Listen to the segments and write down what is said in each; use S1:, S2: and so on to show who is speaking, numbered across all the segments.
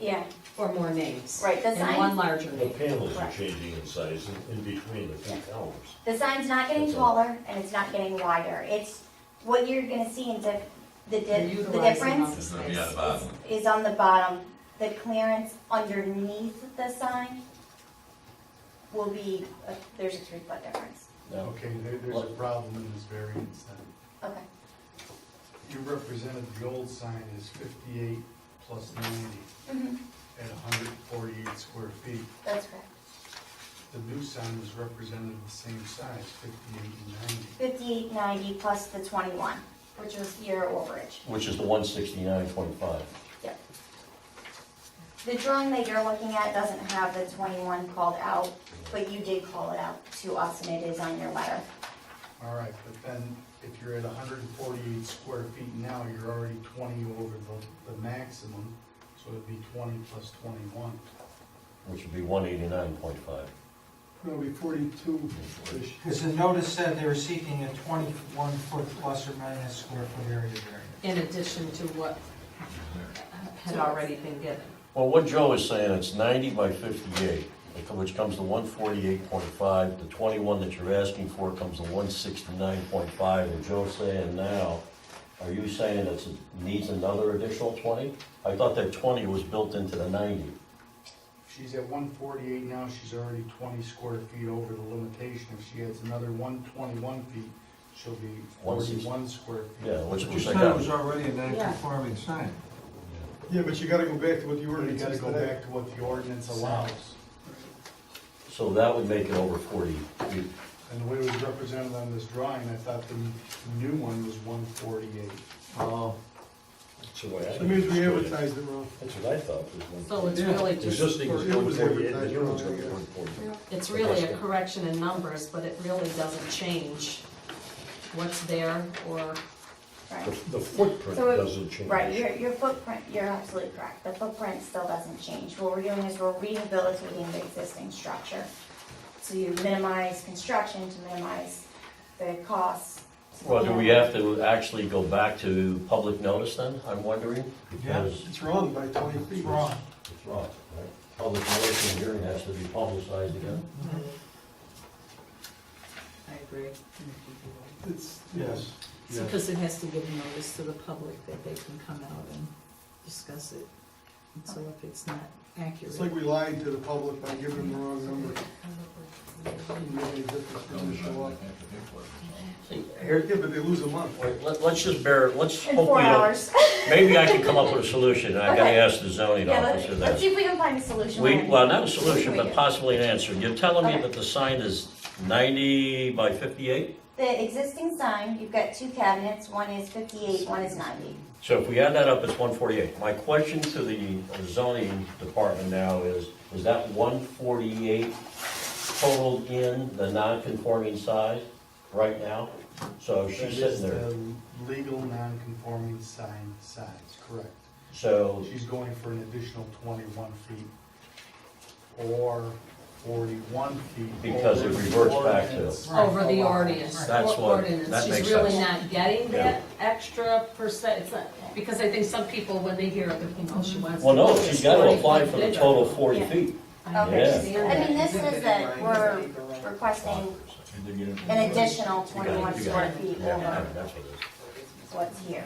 S1: yeah,
S2: or more names.
S1: right, the
S2: And one
S1: sign,
S2: larger
S3: The
S2: name.
S3: panels are
S1: Correct.
S3: changing in size in- in between the two towers.
S1: the sign's not getting
S3: That's all.
S1: taller and it's not getting wider, it's, what you're gonna see in the,
S2: They're
S1: the di- the
S2: utilizing all
S1: difference
S2: the
S4: It's gonna be
S2: space.
S4: at the bottom.
S1: is on the bottom, the clearance underneath the sign will be, uh, there's a three foot difference,
S5: Okay, there, there's a problem in this variance then.
S1: okay.
S5: You represented the old sign as fifty-eight plus ninety
S1: Mhm,
S5: at hundred and forty-eight square feet.
S1: That's correct,
S5: The new sign was represented the same size, fifty-eight and ninety.
S1: fifty-eight ninety plus the twenty-one, which was your overage.
S6: Which is the one sixty-nine twenty-five.
S1: Yep. The drawing that you're looking at doesn't have the 21 called out, but you did call it out to us, and it is on your letter.
S5: All right, but then if you're at hundred and forty-eight square feet now, you're already twenty over the, the maximum, so it'd be twenty plus twenty-one.
S6: which would be one eighty-nine point five.
S5: It'll be forty-two-ish.
S7: Because the notice said they were seeking a 21-foot plus or minus square foot area variance.
S2: In addition to what had already been given.
S6: Well, what Joe is saying, it's ninety by fifty-eight, which comes to one forty-eight point five, the twenty-one that you're asking for comes to one sixty-nine point five, and Joe's saying now, are you saying it's, it needs another additional twenty? I thought that twenty was built into the ninety.
S5: She's at one forty-eight now, she's already twenty square feet over the limitation. If she adds another one twenty-one feet, she'll be
S6: One sixty.
S5: forty-one square feet.
S6: Yeah, which,
S8: But you
S6: which I
S8: said it was
S6: got.
S8: already a non-conforming sign.
S9: Yeah, but you gotta go back to what the
S5: You
S9: ordinance
S5: gotta
S9: is
S5: go
S9: today.
S5: back to what the ordinance allows.
S6: So that would make it over forty. We-
S5: And the way it was represented on this drawing, I thought the new one was one forty-eight.
S8: Oh,
S3: That's the way I.
S9: That means we
S3: understood it.
S9: advertised it wrong.
S3: That's what I thought was one.
S2: So it's really
S3: The
S2: just,
S3: existing is
S9: It
S3: one
S9: was
S3: forty-eight, the
S9: advertised
S3: new one's
S9: wrong,
S3: gonna be
S9: yeah.
S3: one forty-eight.
S2: it's really a correction in numbers, but it really doesn't change what's there or,
S1: Right.
S3: The- The footprint
S1: So it-
S3: doesn't change.
S1: Right, your, your footprint, you're absolutely correct. The footprint still doesn't change. What we're doing is we're rehabilitating the existing structure. So you minimize construction to minimize the costs.
S6: Well, do we have to actually go back to public notice then, I'm wondering?
S8: Yeah.
S6: Because
S9: It's wrong by twenty
S8: it's
S9: feet.
S8: wrong.
S6: It's wrong, right? Public notice and hearing has to be publicized again.
S10: I agree.
S9: It's,
S8: Yes.
S9: yes.
S8: Yes.
S10: Because it has to give notice to the public that they can come out and discuss it. And so if it's not
S9: It's like
S10: accurate.
S9: we lied to the public by giving them the wrong number. Doesn't make any difference when they show up.
S6: See, here-
S9: Yeah, but they lose a month.
S6: wait, let, let's just bear, let's
S1: In
S6: hope
S1: four
S6: we don't.
S1: hours.
S6: Maybe I can come up with a solution, I gotta
S1: Okay.
S6: ask the zoning
S1: Yeah, let's,
S6: officer
S1: let's see
S6: that.
S1: if we can find a solution.
S6: We,
S1: when-
S6: well, not a solution,
S1: we
S6: but
S1: do.
S6: possibly an answer. You're telling me
S1: Okay.
S6: that the sign is ninety by fifty-eight?
S1: The existing sign, you've got two cabinets, one is fifty-eight, one is ninety.
S6: So if we add that up, it's one forty-eight. My question to the zoning department now is, is that one forty-eight total in the non-conforming size right now? So
S5: That
S6: she's
S5: is
S6: sitting there,
S5: the legal non-conforming sign size, correct.
S6: so
S5: She's going for an additional twenty-one feet or forty-one feet.
S6: Because it
S5: over the
S6: reverts back to-
S5: ordinance.
S2: over the
S5: Right.
S2: ordinance.
S6: That's
S2: or-
S6: what-
S2: ordinance.
S6: that makes
S2: She's really
S6: sense.
S2: not getting
S6: Yeah.
S2: that extra percent, it's not, because I think some people, when they hear, it, they think, oh, she wants.
S6: Well, no,
S2: to
S6: she's gotta
S2: be
S6: apply for the
S2: bigger.
S6: total forty
S1: Yeah.
S6: feet.
S1: Okay,
S2: Yeah.
S1: I mean, this is that we're requesting an additional
S6: You got it,
S1: twenty-one
S6: you got
S1: square
S6: it.
S1: feet
S6: Yeah, yeah,
S1: over
S6: That's what it is.
S1: what's here.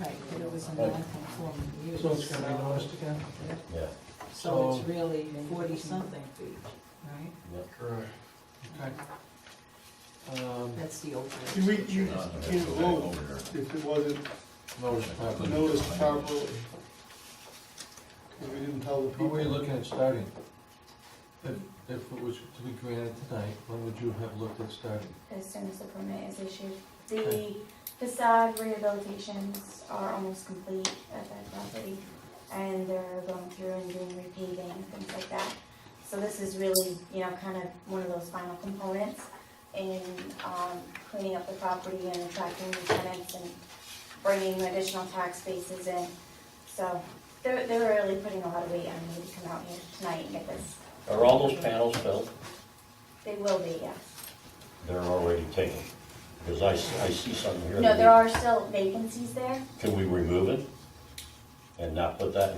S10: Right, but it was a non-conforming use.
S8: So it's gonna be noticed again?
S6: Yeah,
S10: So it's really forty-something feet, right?
S5: Correct.
S8: Okay. Um,
S10: That's the old.
S9: See, we, you can't vote if it wasn't
S8: notice properly.
S9: noticed properly. 'Cause we didn't tell the
S8: When were you
S9: people.
S8: looking at starting? If, if it was to be granted tonight, when would you have looked at starting?
S1: As soon as the permit is issued, the facade rehabilitations are almost complete at that property. And they're going through and doing repaving and things like that. So this is really, you know, kind of one of those final components in, um, cleaning up the property and attracting new tenants and bringing additional tax bases in. So they're, they're really putting a lot of weight on me to come out here tonight and get this.
S6: are all those panels filled?
S1: They will be, yes.
S6: They're already taken, because I, s- I see something here.
S1: No,
S6: that
S1: there are still vacancies there.
S6: we- Can we remove it? And not put that